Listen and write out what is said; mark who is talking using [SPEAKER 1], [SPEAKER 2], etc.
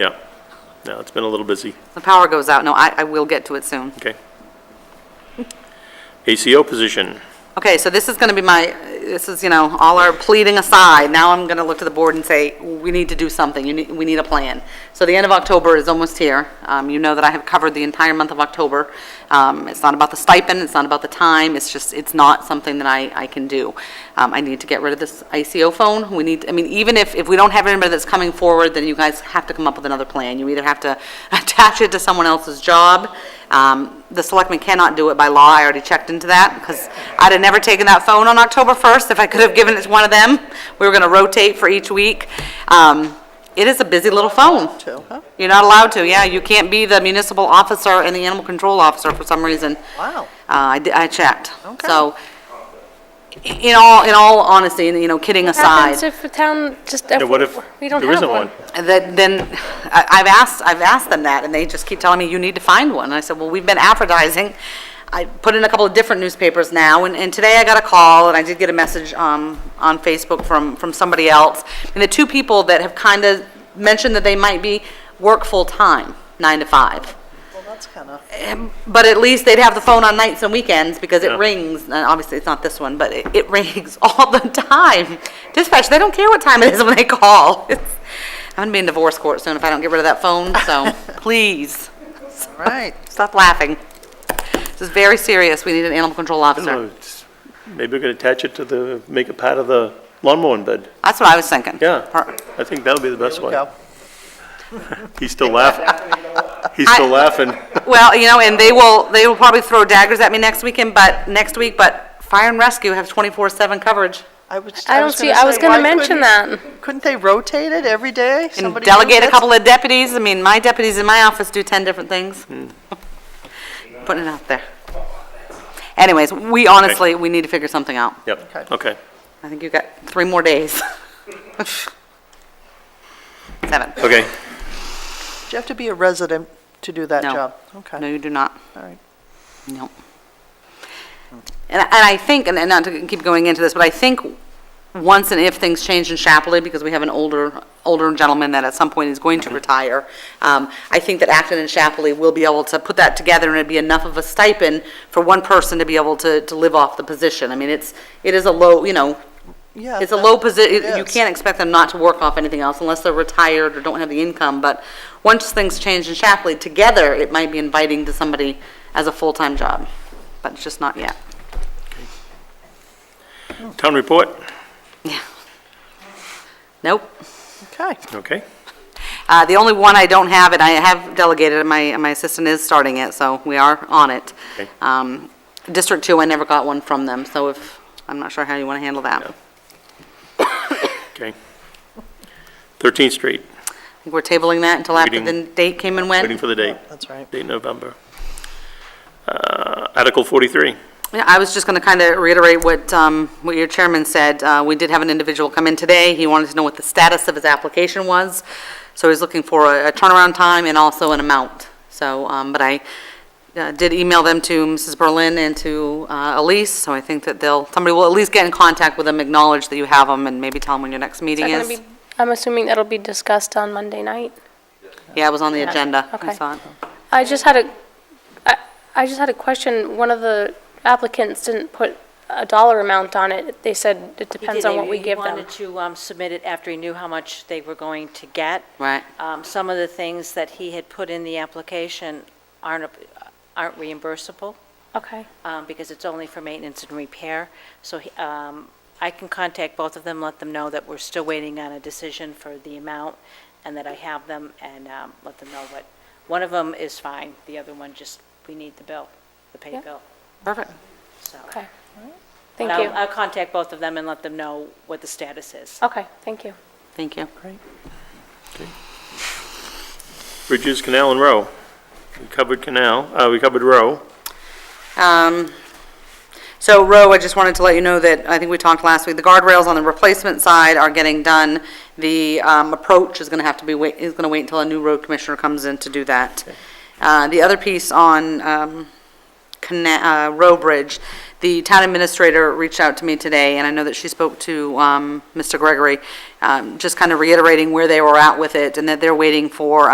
[SPEAKER 1] Yeah, no, it's been a little busy,
[SPEAKER 2] The power goes out. No, I, I will get to it soon.
[SPEAKER 1] okay. ACO position,
[SPEAKER 2] Okay, so this is going to be my, this is, you know, all our pleading aside, now I'm going to look to the board and say, we need to do something, you need, we need a plan. So the end of October is almost here. Um, you know that I have covered the entire month of October. Um, it's not about the stipend, it's not about the time, it's just, it's not something that I, I can do. Um, I need to get rid of this ICO phone, we need, I mean, even if, if we don't have anybody that's coming forward, then you guys have to come up with another plan. You either have to attach it to someone else's job, um, The selectmen cannot do it by law, I already checked into that, because I'd have never taken that phone on October 1st if I could have given it to one of them. We were going to rotate for each week. Um, It is a busy little phone. You're not allowed to, yeah, you can't be the municipal officer and the animal control officer for some reason.
[SPEAKER 3] Wow.
[SPEAKER 2] Uh, I di- I checked.
[SPEAKER 3] Okay.
[SPEAKER 2] So, i- in all, in all honesty, and, you know, kidding aside.
[SPEAKER 4] happens if the town just,
[SPEAKER 1] Yeah, what if
[SPEAKER 4] we don't
[SPEAKER 1] there
[SPEAKER 4] have
[SPEAKER 1] isn't
[SPEAKER 4] one?
[SPEAKER 1] one?
[SPEAKER 2] that then, I- I've asked, I've asked them that, and they just keep telling me, you need to find one. And I said, well, we've been advertising. I put in a couple of different newspapers now, and, and today I got a call, and I did get a message, um, on Facebook from, from somebody else. And the two people that have kind of mentioned that they might be, work full-time, nine to five.
[SPEAKER 3] Well, that's kind of,
[SPEAKER 2] But at least they'd have the phone on nights and weekends because
[SPEAKER 1] Yeah.
[SPEAKER 2] it rings, and obviously it's not this one, but it, it rings all the time. Dispatch, they don't care what time it is when they call. It's, I'm gonna be in divorce court soon if I don't get rid of that phone, so please,
[SPEAKER 3] right.
[SPEAKER 2] stop laughing. This is very serious. We need an animal control
[SPEAKER 1] I
[SPEAKER 2] officer.
[SPEAKER 1] don't know, it's- maybe we could attach it to the, make it part of the lawnmower bed.
[SPEAKER 2] That's what I was thinking.
[SPEAKER 1] Yeah,
[SPEAKER 2] Or-
[SPEAKER 1] I think that would be the best one.
[SPEAKER 3] Go.
[SPEAKER 1] He's still laughing. He's still laughing.
[SPEAKER 2] Well, you know, and they will, they will probably throw daggers at me next weekend, but, next week, but fire and rescue have twenty-four seven coverage.
[SPEAKER 3] I was,
[SPEAKER 4] I
[SPEAKER 3] I
[SPEAKER 4] don't
[SPEAKER 3] was
[SPEAKER 4] see,
[SPEAKER 3] gonna
[SPEAKER 4] I was
[SPEAKER 3] say,
[SPEAKER 4] going
[SPEAKER 3] why
[SPEAKER 4] to mention
[SPEAKER 3] couldn't-
[SPEAKER 4] that.
[SPEAKER 3] Couldn't they rotate it every day?
[SPEAKER 2] And
[SPEAKER 3] Somebody new
[SPEAKER 2] delegate a
[SPEAKER 3] gets-
[SPEAKER 2] couple of deputies. I mean, my deputies in my office do 10 different things. Putting it out there. Anyways, we honestly, we need to figure something out.
[SPEAKER 1] Yep,
[SPEAKER 3] Okay.
[SPEAKER 1] okay.
[SPEAKER 2] I think you've got three more days. Seven.
[SPEAKER 1] Okay,
[SPEAKER 3] Do you have to be a resident to do that
[SPEAKER 2] No.
[SPEAKER 3] job?
[SPEAKER 2] No,
[SPEAKER 3] Okay,
[SPEAKER 2] you do not.
[SPEAKER 3] all right.
[SPEAKER 2] No. And, and I think, and and not to keep going into this, but I think once and if things change in Chapley, because we have an older, older gentleman that at some point is going to retire, um, I think that Acton and Chapley will be able to put that together and it'd be enough of a stipend for one person to be able to, to live off the position. I mean, it's, it is a low, you know,
[SPEAKER 3] Yeah,
[SPEAKER 2] it's a
[SPEAKER 3] that-
[SPEAKER 2] low position,
[SPEAKER 3] it
[SPEAKER 2] you
[SPEAKER 3] is.
[SPEAKER 2] can't expect them not to work off anything else unless they're retired or don't have the income, but once things change in Chapley, together, it might be inviting to somebody as a full-time job, but it's just not yet.
[SPEAKER 1] town report,
[SPEAKER 2] Yeah. Nope.
[SPEAKER 3] Okay,
[SPEAKER 1] okay.
[SPEAKER 2] Uh, The only one I don't have, and I have delegated, and my, and my assistant is starting it, so we are on it.
[SPEAKER 1] Okay.
[SPEAKER 2] Um, District Two, I never got one from them, so if, I'm not sure how you want to handle that. I
[SPEAKER 1] Okay. 13th Street,
[SPEAKER 2] think we're tabling that until after the
[SPEAKER 1] Waiting-
[SPEAKER 2] date came and went.
[SPEAKER 1] waiting for the date,
[SPEAKER 3] that's right.
[SPEAKER 1] date November. Uh, Article 43,
[SPEAKER 2] Yeah, I was just going to kind of reiterate what, um, what your chairman said. Uh, we did have an individual come in today. He wanted to know what the status of his application was. So he's looking for a a turnaround time and also an amount. So, um, but I uh, did email them to Mrs. Berlin and to, uh, Elise, so I think that they'll, somebody will at least get in contact with them, acknowledge that you have them, and maybe tell them when your next meeting
[SPEAKER 4] Is that
[SPEAKER 2] is.
[SPEAKER 4] gonna be- I'm assuming that'll be discussed on Monday night.
[SPEAKER 2] Yeah, it was on the agenda. I
[SPEAKER 4] okay.
[SPEAKER 2] saw it.
[SPEAKER 4] I just had a, I, I just had a question. One of the applicants didn't put a dollar amount on it. They said it
[SPEAKER 5] He
[SPEAKER 4] depends
[SPEAKER 5] did.
[SPEAKER 4] on
[SPEAKER 5] He-
[SPEAKER 4] what we give
[SPEAKER 5] He
[SPEAKER 4] them.
[SPEAKER 5] wanted to um, submit it after he knew how much they were going to get.
[SPEAKER 2] Right.
[SPEAKER 5] Um, Some of the things that he had put in the application aren't, ap- aren't reimbursable
[SPEAKER 4] Okay,
[SPEAKER 5] um, because it's only for maintenance and repair. So he- um, I can contact both of them, let them know that we're still waiting on a decision for the amount and that I have them and um, let them know what, one of them is fine, the other one just, we need the bill, the pay
[SPEAKER 4] Yeah.
[SPEAKER 5] bill,
[SPEAKER 2] Perfect.
[SPEAKER 5] so.
[SPEAKER 4] okay.
[SPEAKER 5] But
[SPEAKER 4] Thank
[SPEAKER 5] I'll-
[SPEAKER 4] you.
[SPEAKER 5] I'll contact both of them and let them know what the status is.
[SPEAKER 4] Okay, thank you.
[SPEAKER 2] Thank you.
[SPEAKER 1] Bridges, Canal, and Row. We covered Canal, uh, we covered Row.
[SPEAKER 2] Um, So Roe, I just wanted to let you know that, I think we talked last week, the guardrails on the replacement side are getting done. The um, approach is going to have to be, wait is going to wait until a new road commissioner comes in to do that. Uh, The other piece on um, Cana- uh, Row Bridge, the town administrator reached out to me today, and I know that she spoke to um, Mr. Gregory, um, just kind of reiterating where they were at with it, and that they're waiting for